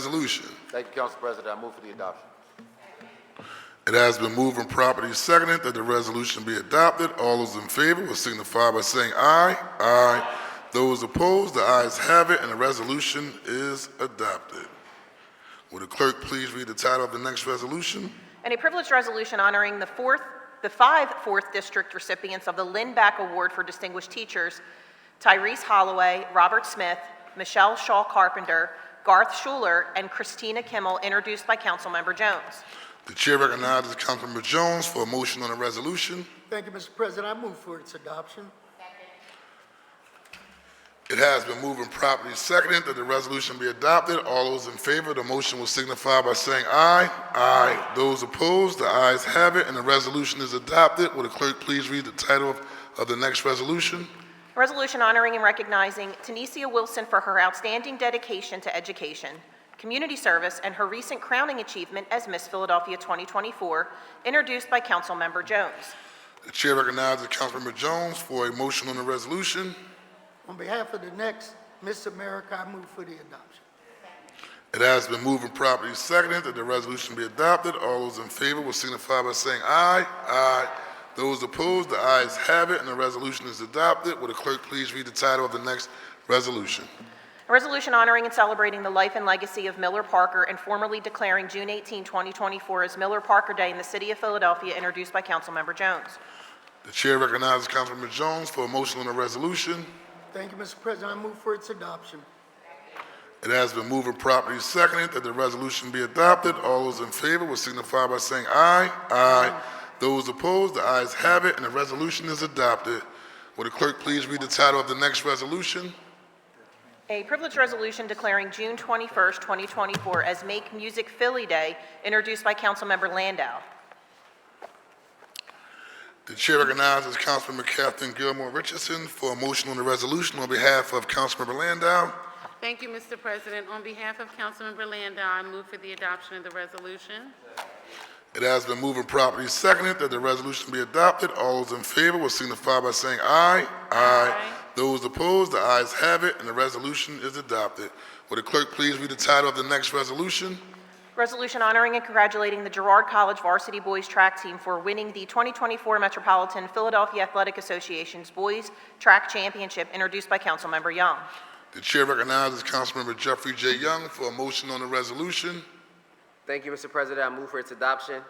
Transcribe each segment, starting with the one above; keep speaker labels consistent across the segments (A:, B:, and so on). A: resolution.
B: Thank you, Council President. I move for the adoption.
A: It has been moved and properly seconded that the resolution be adopted. All those in favor will signify by saying aye. Aye. Those opposed, the ayes have it, and the resolution is adopted. Would the clerk please read the title of the next resolution?
C: And a privileged resolution honoring the fourth, the five fourth district recipients of the Lynn Back Award for Distinguished Teachers, Tyrese Holloway, Robert Smith, Michelle Shaw Carpenter, Garth Schuler, and Christina Kimmel, introduced by Councilmember Jones.
A: The chair recognizes Councilmember Jones for a motion on the resolution.
D: Thank you, Mr. President. I move for its adoption.
A: It has been moved and properly seconded that the resolution be adopted. All those in favor of the motion will signify by saying aye. Aye. Those opposed, the ayes have it, and the resolution is adopted. Will the clerk please read the title of, of the next resolution?
C: A Resolution honoring and recognizing Tanisha Wilson for her outstanding dedication to education, community service, and her recent crowning achievement as Miss Philadelphia 2024, introduced by Councilmember Jones.
A: The chair recognizes Councilmember Jones for a motion on the resolution.
D: On behalf of the next Miss America, I move for the adoption.
A: It has been moved and properly seconded that the resolution be adopted. All those in favor will signify by saying aye. Aye. Those opposed, the ayes have it, and the resolution is adopted. Will the clerk please read the title of the next resolution?
C: A resolution honoring and celebrating the life and legacy of Miller Parker and formally declaring June 18, 2024 as Miller Parker Day in the city of Philadelphia, introduced by Councilmember Jones.
A: The chair recognizes Councilmember Jones for a motion on the resolution.
D: Thank you, Mr. President. I move for its adoption.
A: It has been moved and properly seconded that the resolution be adopted. All those in favor will signify by saying aye. Aye. Those opposed, the ayes have it, and the resolution is adopted. Will the clerk please read the title of the next resolution?
C: A privileged resolution declaring June 21, 2024 as Make Music Philly Day, introduced by Councilmember Landau.
A: The chair recognizes Councilmember Catherine Gilmore Richardson for a motion on the resolution on behalf of Councilmember Landau.
E: Thank you, Mr. President. On behalf of Councilmember Landau, I move for the adoption of the resolution.
A: It has been moved and properly seconded that the resolution be adopted. All those in favor will signify by saying aye. Aye. Those opposed, the ayes have it, and the resolution is adopted. Will the clerk please read the title of the next resolution?
C: Resolution honoring and congratulating the Girard College varsity boys track team for winning the 2024 Metropolitan Philadelphia Athletic Association's Boys Track Championship, introduced by Councilmember Young.
A: The chair recognizes Councilmember Jeffrey J. Young for a motion on the resolution.
F: Thank you, Mr. President. I move for its adoption.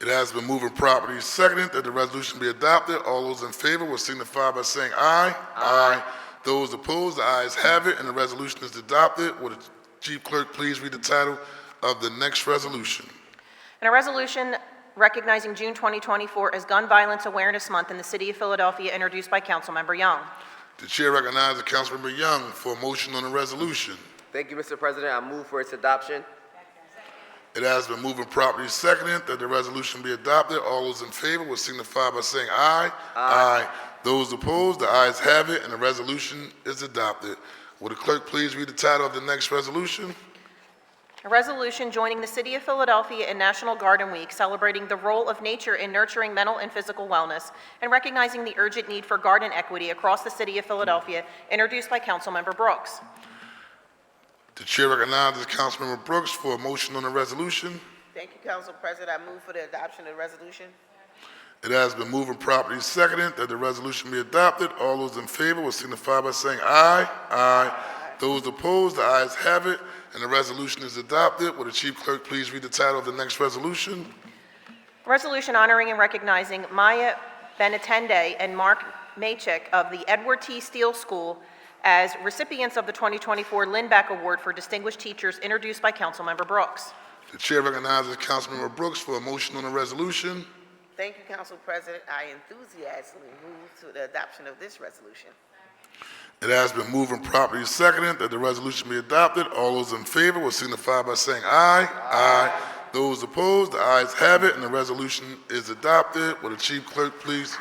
A: It has been moved and properly seconded that the resolution be adopted. All those in favor will signify by saying aye. Aye. Those opposed, the ayes have it, and the resolution is adopted. Will the chief clerk please read the title of the next resolution?
C: And a resolution recognizing June 2024 as Gun Violence Awareness Month in the City of Philadelphia, introduced by Councilmember Young.
A: The chair recognizes Councilmember Young for a motion on the resolution.
F: Thank you, Mr. President. I move for its adoption.
A: It has been moved and properly seconded that the resolution be adopted. All those in favor will signify by saying aye. Aye. Those opposed, the ayes have it, and the resolution is adopted. Will the clerk please read the title of the next resolution?
C: A resolution joining the City of Philadelphia in National Garden Week, celebrating the role of nature in nurturing mental and physical wellness, and recognizing the urgent need for garden equity across the City of Philadelphia, introduced by Councilmember Brooks.
A: The chair recognizes Councilmember Brooks for a motion on the resolution.
G: Thank you, Council President. I move for the adoption of the resolution.
A: It has been moved and properly seconded that the resolution be adopted. All those in favor will signify by saying aye. Aye. Those opposed, the ayes have it, and the resolution is adopted. Will the chief clerk please read the title of the next resolution?
C: A resolution honoring and recognizing Maya Benatende and Mark Machek of the Edward T. Steele School as recipients of the 2024 Lindback Award for Distinguished Teachers, introduced by Councilmember Brooks.
A: The chair recognizes Councilmember Brooks for a motion on the resolution.
G: Thank you, Council President. I enthusiastically move to the adoption of this resolution.
A: It has been moved and properly seconded that the resolution be adopted. All those in favor will signify by saying aye. Aye. Those opposed, the ayes have it, and the resolution is adopted. Will the chief clerk please?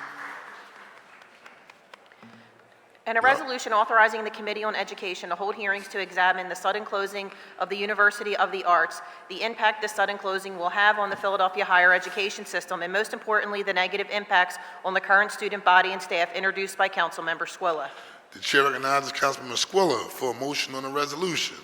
C: And a resolution authorizing the Committee on Education to hold hearings to examine the sudden closing of the University of the Arts, the impact this sudden closing will have on the Philadelphia higher education system, and most importantly, the negative impacts on the current student body and staff, introduced by Councilmember Squilla.
A: The chair recognizes Councilman Squilla for a motion on the resolution.